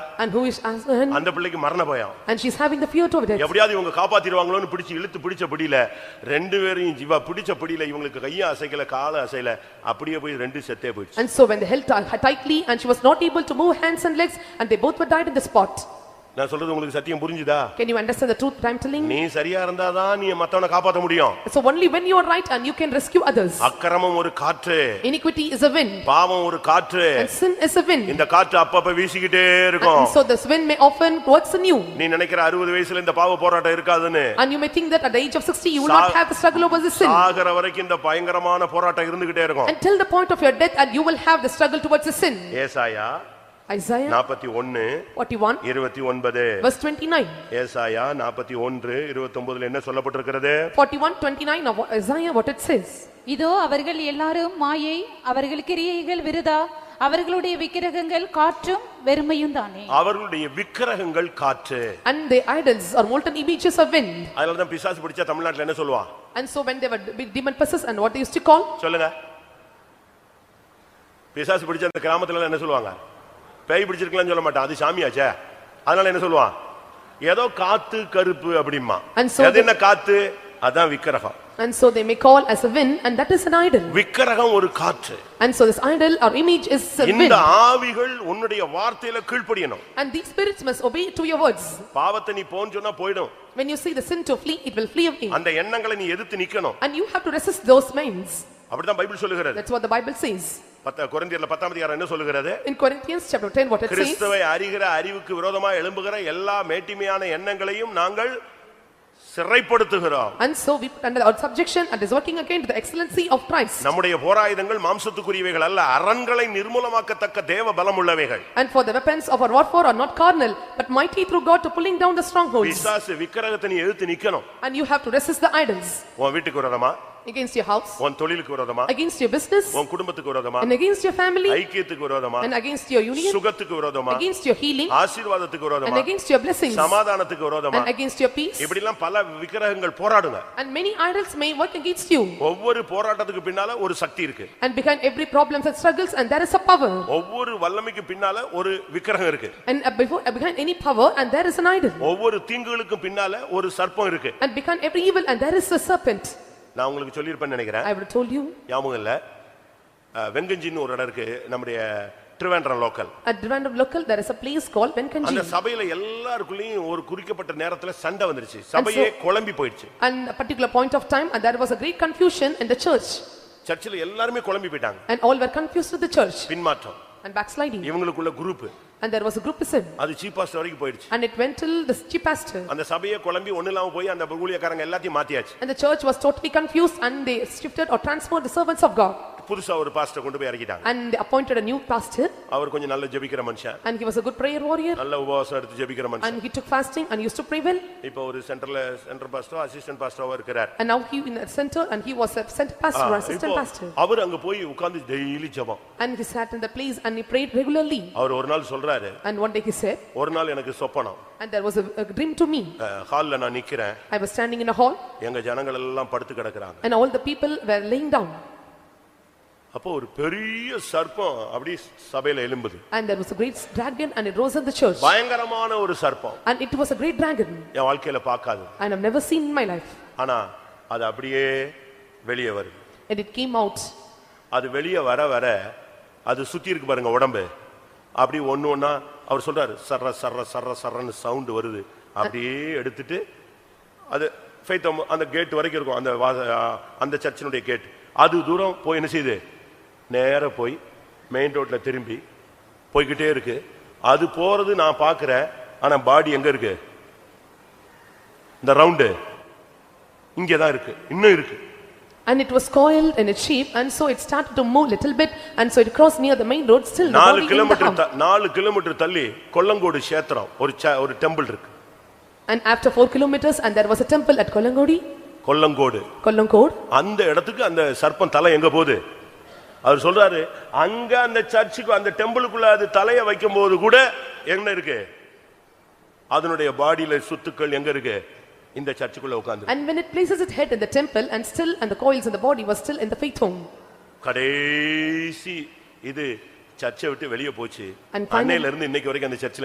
and who is as- and அந்த பிள்ளைக்கு மரண பயம் and she's having the fear of death. எப்படியாவது இவங்க காப்பாத்திடுவாங்களோன்னு பிடிச்சு இழுத்து பிடிச்ச பிடியில ரெண்டு பேரையும் இவ பிடிச்ச பிடியில இவங்களுக்கு கையும் அசைக்கல காலும் அசையல அப்படியே போய் ரெண்டு செத்தே போயிடுச்சு And so when they held her tightly and she was not able to move hands and legs and they both were died in the spot. நான் சொல்றது உங்களுக்கு சத்தியம் புரிஞ்சுதா Can you understand the truth that I'm telling? நீ சரியா இருந்தாதான் நீ மத்தவனை காப்பாத்த முடியும் So only when you are right and you can rescue others. அக்கிரமம் ஒரு காற்று Iniquity is a wind பாவம் ஒரு காற்று and sin is a wind. இந்த காற்று அப்பப்ப வீசிக்கிட்டே இருக்கும் And so this wind may often works in you. நீ நினைக்கிற அறுபது வயசுல இந்த பாவ போராட்டம் இருக்காதுன்னு And you may think that at the age of sixty, you will not Sa- have the struggle over the sin. சாகர வரைக்கும் இந்த பயங்கரமான போராட்டம் இருந்துகிட்டே இருக்கும் Until the point of your death and you will have the struggle towards the sin. ஏசாயா Isaiah நாற்பத்தி ஒன்னு forty-one, இருபத்தி ஒன்பது verse twenty-nine. ஏசாயா நாற்பத்தி ஒன்று இருபத்தொன்பதுல என்ன சொல்லப்பட்டிருக்கிறது Forty-one, twenty-nine of Isaiah, what it says. இதோ அவர்கள் எல்லாரும் மாயை அவர்கள் கிரியைகள் விருதா அவர்களுடைய விக்கிரகங்கள் காற்றும் வெறுமையும் தானே அவர்களுடைய விக்கிரகங்கள் காற்று And their idols are molten images of wind. அதனாலதான் பிசாசு பிடிச்சா தமிழ்நாட்டுல என்ன சொல்லுவான் And so when they were demon possessed and what they used to call, சொல்லுங்க பிசாசு பிடிச்ச அந்த கிராமத்துல என்ன சொல்லுவாங்க பேய் பிடிச்சிருக்கலாம்னு சொல்ல மாட்டான் அது சாமியாச்சே அதனால என்ன சொல்லுவான் ஏதோ காத்து கருப்பு அப்படிமா And so அது என்ன காத்து அதான் விக்கிரகம் and so they may call as a wind and that is an idol. விக்கிரகம் ஒரு காற்று And so this idol or image is a wind. இந்த ஆவிகள் உன்னுடைய வார்த்தையில கீழ்ப்படியணும் And these spirits must obey to your words. பாவத்தை நீ போன்னு சொன்னா போயிடும் When you see the sin to flee, it will flee away. அந்த எண்ணங்களை நீ எதிர்த்து நிக்கணும் And you have to resist those minds. அப்படிதான் பைபிள் சொல்லுகிறது That's what the Bible says. பத்த கொரிந்தியர்ல பத்தாம் அதிகாரம் என்ன சொல்லுகிறது In Corinthians chapter ten, what it says, கிறிஸ்துவை அறிகிற அறிவுக்கு விரோதமா எழும்புகிற எல்லா மேட்டிமையான எண்ணங்களையும் நாங்கள் சிறைப்படுத்துகிறோம் and so we put under our subjection and is working again to the excellency of Christ. நம்முடைய போராயுதங்கள் மாம்சத்துக்குரியவைகள் அல்ல அரண்களை நிர்மூலமாக்கத்தக்க தேவ பலம் உள்ளவைகள் And for the weapons of our warfare are not carnal, but mighty through God to pulling down the strongholds. பிசாசு விக்கிரகத்தை நீ எழுத்து நிக்கணும் And you have to resist the idols உன் வீட்டுக்கு விரோதமா against your house, உன் தொழிலுக்கு விரோதமா against your business, உன் குடும்பத்துக்கு விரோதமா and against your family, ஐக்கியத்துக்கு விரோதமா and against your union, சுகத்துக்கு விரோதமா against your healing, ஆசீர்வாதத்துக்கு and விரோதமா against your blessings, சமாதானத்துக்கு விரோதமா and against your peace. இப்படி எல்லாம் பல விக்கிரகங்கள் போராடுங்க And many idols may work against you. ஒவ்வொரு போராட்டத்துக்கு பின்னால ஒரு சக்தி இருக்கு And behind every problems and struggles, and there is a power. ஒவ்வொரு வல்லமைக்கு பின்னால ஒரு விக்கிரகம் இருக்கு And uh, before, uh, behind any power, and there is an idol. ஒவ்வொரு தீங்குகளுக்கும் பின்னால ஒரு சர்ப்பம் இருக்கு And behind every evil, and there is a serpent. நான் உங்களுக்கு சொல்லியிருப்பேன்னு நினைக்கிறேன் I would have told you, ஞாபகம் இல்ல அஹ், வெங்கஞ்சின்னு ஒரு இடம் இருக்கு நம்முடைய Trivandrum local at random local, there is a place called அந்த Venkanji. சபையில எல்லாருக்குள்ளயும் ஒரு குறிக்கப்பட்ட நேரத்துல சண்டை வந்துருச்சு சபையே குழம்பி போயிடுச்சு And a particular point of time, and there was a great confusion in the church. சர்ச்சில் எல்லாருமே குழம்பி போயிட்டாங்க And all were confused with the church பின்மாற்றம் and backsliding. இவங்களுக்குள்ள group And there was a groupism. அது சீப்பாஸ் வரைக்கும் போயிடுச்சு And it went till the chief pastor. அந்த சபையை குழம்பி ஒண்ணு இல்லாம போய் அந்த ஊழியக்காரங்க எல்லாத்தையும் மாத்தியாச்சு And the church was totally confused, and they shifted or transferred the servants of God. புதுசா ஒரு பாஸ்டர் கொண்டு போய் இறக்கிட்டாங்க And they appointed a new pastor, அவர் கொஞ்சம் நல்ல ஜெபிக்கிற மனுஷன் and he was a good prayer warrior. நல்ல உபவாசம் எடுத்து ஜெபிக்கிற மனுஷன் And he took fasting and used to pray well. இப்போ ஒரு சென்டர்ல சென்டர் பாஸ்டரோ அசிஸ்டன்ட் பாஸ்டரோ இருக்கிறார் And now he in the center and he was a center pastor, or assistant இப்போ pastor. அவர் அங்க போய் உட்கார்ந்து டெய்லி ஜெபம் And he sat in the place and he prayed regularly. அவர் ஒரு நாள் சொல்றாரு And one day he said, ஒரு நாள் எனக்கு சொப்பனம் and there was a a dream to me. அஹ், ஹால்ல நான் நிக்கிறேன் I was standing in a hall எங்க ஜனங்கள் எல்லாம் படுத்து கிடக்குறாங்க and all the people were laying down. அப்போ ஒரு பெரிய சர்ப்பம் அப்படி சபையில எலும்புது And there was a great dragon and it rose in the church. பயங்கரமான ஒரு சர்ப்பம் And it was a great dragon என் வாழ்க்கையில பார்க்காது and I've never seen in my life. ஆனா அது அப்படியே வெளியே வருது And it came out அது வெளியே வர வர அது சுத்தி இருக்கு பாருங்க உடம்பு அப்படி ஒண்ணு ஒண்ணா அவர் சொல்றாரு சர்ற சர்ற சர்ற சர்றன்னு சவுண்டு வருது அப்படியே எடுத்துட்டு அது faith am- அந்த கேட் வரைக்கும் இருக்கும் அந்த வாச- ஆ, அந்த சர்ச்சினுடைய கேட் அது தூரம் போய் என்ன செய்யுது நேரா போய் மெயின் ரோட்ல திரும்பி போய்கிட்டே இருக்கு அது போறது நான் பார்க்கிறேன் ஆனா பாடி எங்க இருக்கு இந்த ரவுண்டு இங்கே தான் இருக்கு இன்னும் இருக்கு and it was coiled in its shape and so it started to move little bit and so it crossed near the main road still the நாலு body in the kilometre hump. த- நாலு kilometre தள்ளி கொல்லங்கோடு சேத்திரம் ஒரு ச- ஒரு temple இருக்கு And after four kilometers and there was a temple at Kolangodi, Kollankodu Kolangkod. அந்த இடத்துக்கு அந்த சர்ப்பம் தலை எங்க போகுது அவர் சொல்றாரு அங்க அந்த சர்ச்சுக்கு அந்த டெம்பிளுக்குள்ள அது தலையை வைக்கும் போது கூட என்ன இருக்கு அதனுடைய பாடியில சுத்துக்கள் எங்க இருக்கு இந்த சர்ச்சுக்குள்ள உட்கார்ந்து And when it places its head in the temple and still and the coils in the body was still in the faith home. கடைசி இது சர்ச்சை விட்டு வெளியே போச்சு And finally- அன்னையில இருந்து இன்னைக்கு வரைக்கும் அந்த சர்ச்சில்